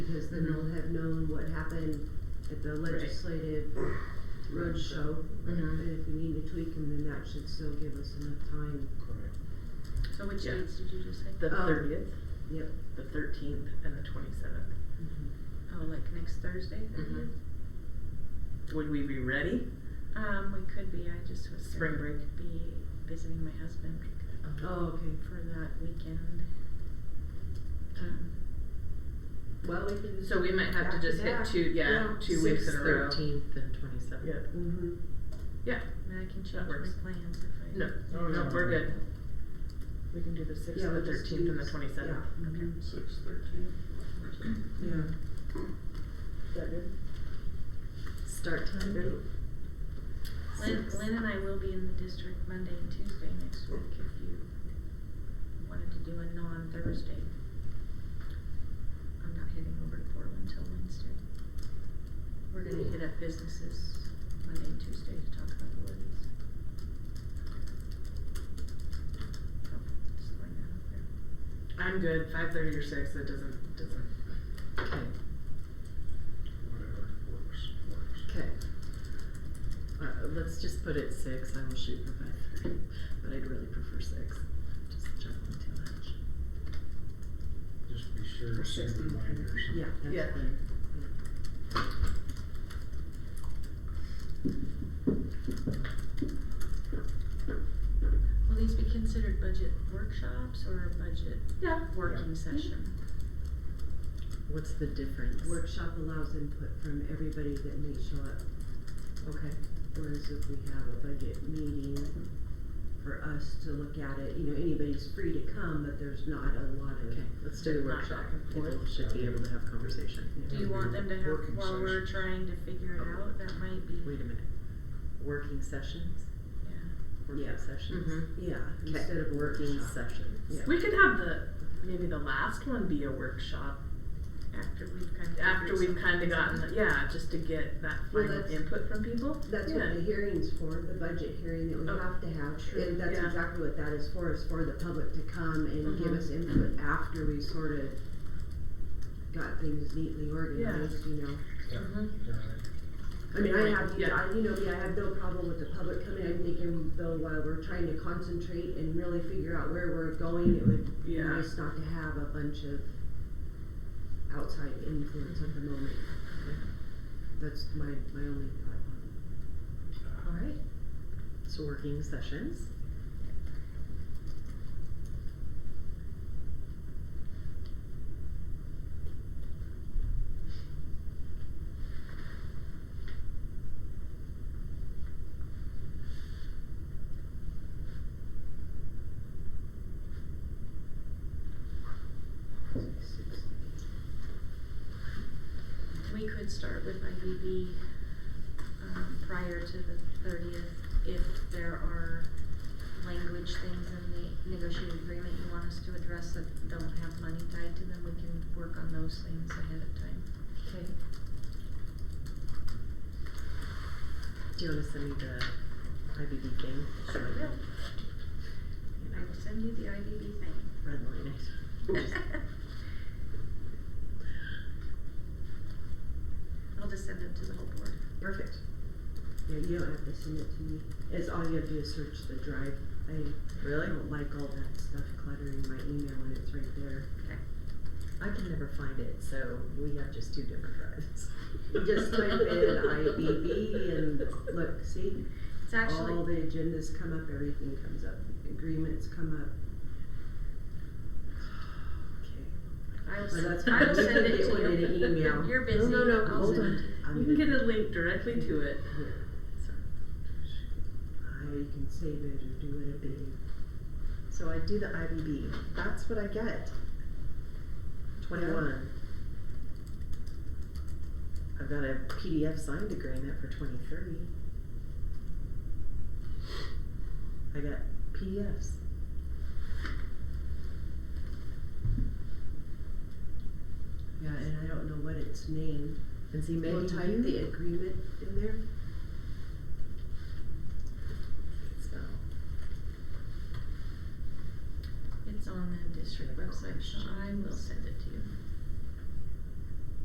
because then they'll have known what happened at the legislative roadshow. Mm-hmm. Mhm. And if we need to tweak them, then that should still give us enough time. Correct. So which Yeah. dates did you just say? Oh, The Um, thirtieth, Yep. the thirteenth, and the twenty-seventh. Mm-hmm. Oh, like next Thursday? Would we be ready? Um, we could be, I just was. Spring gonna break. Be visiting my husband Uh-huh. Oh, okay. for that weekend. Um, Well, we can. So we might have to just hit two, yeah, two weeks in a row. Thirteenth and twenty-seventh. Yeah. Mm-hmm. I mean, I can change works. my plans if I. No, Oh, no, yeah. we're good. We can do the sixth, Yeah, the we'll just thirteenth, and the do- twenty-seventh. Mm-hmm. yeah. Mm-hmm. Mhm. Six thirteen. Yeah. Is that good? Start time, Lynn, Lynn and I will be in the district Monday and Tuesday next week if you wanted to do a non-Thursday. I'm not heading over to Portland till Wednesday. We're gonna hit up businesses Monday and Tuesday to talk about the levies. So, just throwing that out there. I'm good, five thirty or six, it doesn't, doesn't, okay, Whatever works, works. okay. Uh, let's just put it six, I will shoot for five thirty, but I'd really prefer six, just juggling too much. Just be sure to set reminders. Yeah, that's Yeah. fine. Will these be considered budget workshops or budget yeah. working session? What's the difference? Workshop allows input from everybody that may show up, Okay, whereas if we have a budget meeting for us to look at it, you know, anybody's free to come, but there's not a lot of. okay, let's do the Not workshop, back and people forth. should be able to have conversation. Do you want them to have, Working while we're session. trying to figure it out, that might be, Wait a minute, working sessions, yeah. working Yeah. sessions? Mhm. Yeah, Okay, instead of working workshop. sessions. Yeah. We could have the, maybe the last one be a workshop, After we've kind of. after figured we've something kinda gotten, out. the- yeah, just to get that Well, final that's- input from people. That's Yeah. what the hearing's for, the budget hearing that we Oh, have to have, true, and that's yeah. exactly what that is for, is for the public to come and give Mm-hmm. Mhm. us input after we sort of got things neatly organized, you know? Yeah, Mhm. you're right. I mean, I have, Yeah. I, you know, me, I have no problem with the public coming, I'm thinking though while we're trying to concentrate and really figure out where we're going, it would be Yeah. nice not to have a bunch of outside influence at the moment. That's my, my only thought on it. Alright, so working sessions. We could start with IBB, um, prior to the thirtieth, if there are language things in the negotiated agreement you want us to address that don't have money tied to them, we can work on those things ahead of time. Okay. Do you wanna send me the IBB game? Sure You will. I know, will send you the IBB redline it. thing. I'll just send it to the whole board. Perfect. Yeah, you don't have to send it to me. It's all you have to do is search the drive. I Really? don't like all that stuff cluttering my email when it's right there. Okay. I can never find it, so we have just two different drives. Just type in IBB and look, see, It's actually. all the agendas come up, everything comes up, agreements come up. I will Well, that's send, I will fine. send it Get to one in an you. email. No, You're busy. no, no, I'll hold send on. it. I'm You can get gonna- a link directly to it. Here, So- I can save it or do whatever you. So I do the IBB, that's what I get. Twenty-one. I've got a PDF signed agreement for twenty-three. I got PDFs. Yeah, and I don't know what it's named. And see, maybe We'll type the you agreement in there. can spell. It's on the district website, so I will send it to you.